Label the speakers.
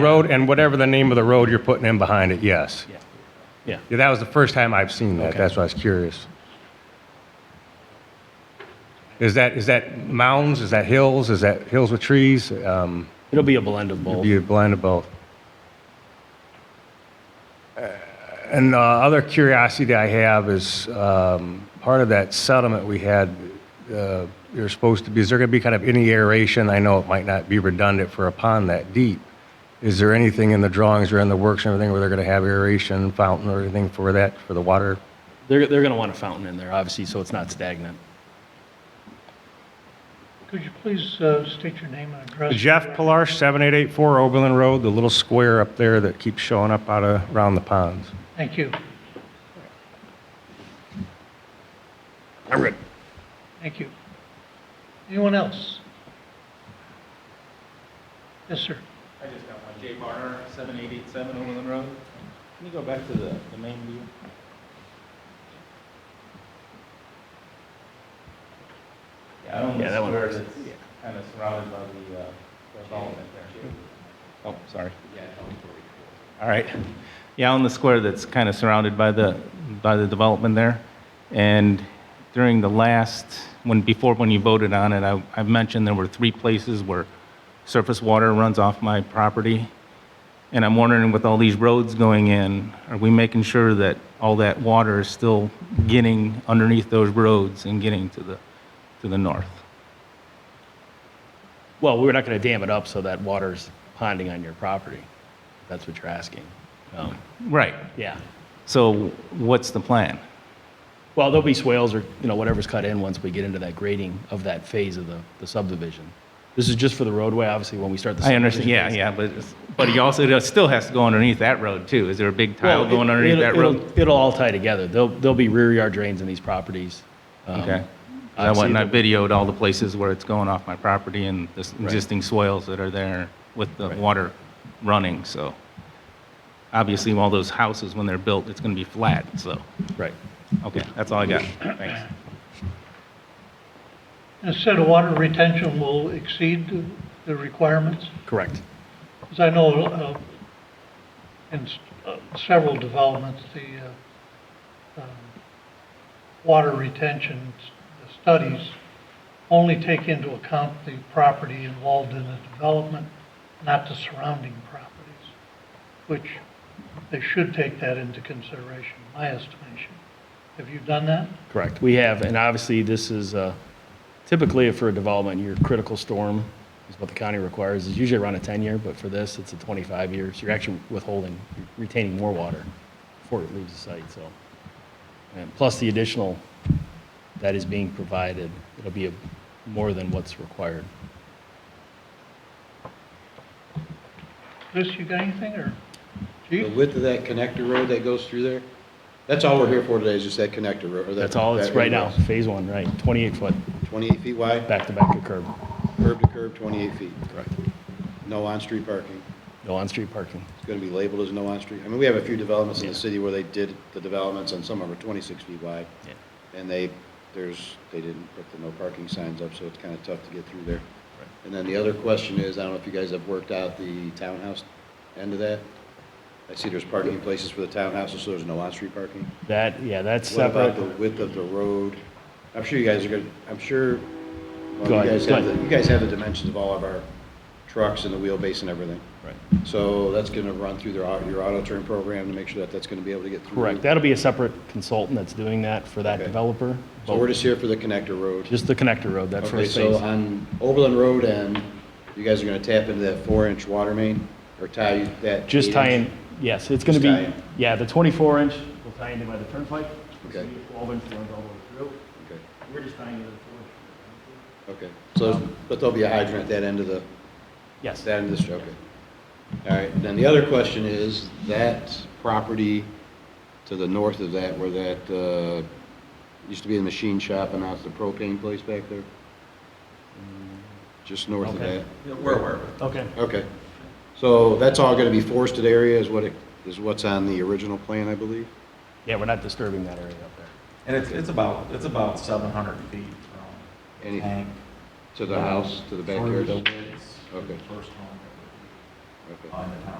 Speaker 1: Road and whatever the name of the road you're putting in behind it, yes.
Speaker 2: Yeah.
Speaker 1: Yeah, that was the first time I've seen that.
Speaker 2: Okay.
Speaker 1: That's why I was curious. Is that, is that mounds? Is that hills? Is that hills with trees? Um,
Speaker 2: It'll be a blend of both.
Speaker 1: be a blend of both. Uh, And uh, other curiosity I have is um, part of that settlement we had. Uh, you're supposed to be. Is there going to be kind of any aeration? I know it might not be redundant for a pond that deep. Is there anything in the drawings or in the works and everything where they're going to have aeration, fountain, or anything for that for the water?
Speaker 2: They're, they're going to want a fountain in there, obviously, so it's not stagnant.
Speaker 3: Could you please uh, state your name and address?
Speaker 1: Jeff Pilar, seven eight eight four Oberlin Road, the little square up there that keeps showing up out of around the ponds.
Speaker 3: Thank you.
Speaker 1: I'm good.
Speaker 3: Thank you. Anyone else? Yes, sir.
Speaker 4: I just got one, Jay Barner, 7887 Overland Road. Can you go back to the, the main view? Yeah, I don't
Speaker 2: Yeah, that one
Speaker 4: swear
Speaker 2: works.
Speaker 4: that's kind of surrounded by the uh, development there. Oh, sorry. All right. Yeah, on the square that's kind of surrounded by the, by the development there. And during the last, when, before when you voted on it, I, I mentioned there were three places where surface water runs off my property. And I'm wondering with all these roads going in, are we making sure that all that water is still getting underneath those roads and getting to the, to the north?
Speaker 2: Well, we're not going to dam it up so that water's ponding on your property. if That's what you're asking. Um,
Speaker 4: Right.
Speaker 2: Yeah.
Speaker 4: So what's the plan?
Speaker 2: Well, there'll be swales or, you know, whatever's cut in once we get into that grading of that phase of the, the subdivision. This is just for the roadway, obviously, when we start the.
Speaker 4: I understand,
Speaker 2: subdivision
Speaker 4: yeah,
Speaker 2: phase.
Speaker 4: yeah, but, it's- but he also, it still has to go underneath that road too. Is there a big tile
Speaker 2: Well,
Speaker 4: going
Speaker 2: it-
Speaker 4: underneath that
Speaker 2: it'll-
Speaker 4: road?
Speaker 2: It'll, it'll all tie together. There'll, there'll be rear yard drains in these properties. Um,
Speaker 4: Okay. I
Speaker 2: obviously
Speaker 4: went and I
Speaker 2: the-
Speaker 4: videoed all the places where it's going off my property and the s- existing soils that are there with the water running, so. Obviously, all those houses, when they're built, it's gonna be flat, so,
Speaker 2: Right.
Speaker 4: okay, that's all I got. Thanks.
Speaker 3: Instead of water retention will exceed the- the requirements?
Speaker 2: Correct.
Speaker 3: Because I know uh, in s- uh, several developments, the uh, um, water retention s- studies only take into account the property involved in the development, not the surrounding properties, which they should take that into consideration, my estimation. Have you done that?
Speaker 2: Correct. We have, and obviously, this is uh, typically for a development, your critical storm is what the county requires. It's usually around a 10-year, but for this, it's a 25-year. So you're actually withholding, retaining more water before it leaves the site, so. And plus the additional that is being provided, it'll be a- more than what's required.
Speaker 3: Chris, you got anything, or
Speaker 5: The
Speaker 3: Chief?
Speaker 5: width of that connector road that goes through there? That's all we're here for today, is just that connector road. or that-
Speaker 2: That's all it's
Speaker 5: that
Speaker 2: right now,
Speaker 5: ingress.
Speaker 2: phase one, right, 28-foot,
Speaker 5: 28 feet wide,
Speaker 2: back-to-back to curb.
Speaker 5: curb to curb, 28 feet.
Speaker 2: Correct.
Speaker 5: No on-street parking.
Speaker 2: No on-street parking.
Speaker 5: It's going to be labeled as no on-street. I mean, we have a few developments in the city where they did the developments, and some of them are 26 feet wide.
Speaker 2: Yeah.
Speaker 5: And they, there's, they didn't put the no parking signs up, so it's kind of tough to get through there. And then the other question is, I don't know if you guys have worked out the townhouse end of that? I see there's parking places for the townhouses, so there's no on-street parking.
Speaker 2: That, yeah, that's
Speaker 5: What
Speaker 2: separate.
Speaker 5: about the width of the road? I'm sure you guys are gonna, I'm sure,
Speaker 2: Go
Speaker 5: well, you
Speaker 2: ahead,
Speaker 5: guys
Speaker 2: go
Speaker 5: have, the-
Speaker 2: ahead.
Speaker 5: you guys have the dimensions of all of our trucks and the wheelbase and everything.
Speaker 2: Right.
Speaker 5: So that's gonna run through their, au- your auto turn program to make sure that that's gonna be able to get through.
Speaker 2: Correct. That'll be a separate consultant that's doing that for that
Speaker 5: Okay.
Speaker 2: developer.
Speaker 5: So we're just here for the connector road.
Speaker 2: Just the connector road, that
Speaker 5: Okay,
Speaker 2: first
Speaker 5: so
Speaker 2: phase.
Speaker 5: on Oberlin Road end, you guys are gonna tap into that four-inch water main or tie that.
Speaker 2: Just
Speaker 5: eight-inch?
Speaker 2: tie in, yes, it's going
Speaker 5: Just tie
Speaker 2: to
Speaker 5: in.
Speaker 2: be, yeah, the 24 inch will tie into by the turnpike. It's
Speaker 5: Okay.
Speaker 2: gonna be a 12 inch runs all the way through.
Speaker 5: Okay,
Speaker 2: We're just tying into the 4
Speaker 5: Okay, so, but there'll be a hydrant at that end of the.
Speaker 2: Yes,
Speaker 5: That and this, okay. All right, and then the other question is, that property to the north of that, where that, uh, used to be the machine shop and now it's the propane place back there? Just north of
Speaker 2: Okay.
Speaker 5: that?
Speaker 2: okay.
Speaker 5: Okay. So that's all gonna be forested area is what, it- is what's on the original plan, I believe?
Speaker 2: Yeah, we're not disturbing that area up there.
Speaker 6: And it's, it's about, it's about seven hundred feet from the
Speaker 5: Anything,
Speaker 6: tank.
Speaker 5: to the house, to the
Speaker 6: Sort of
Speaker 5: backyard?
Speaker 6: is
Speaker 5: Okay.
Speaker 6: the First home.
Speaker 5: Okay.
Speaker 6: on the town.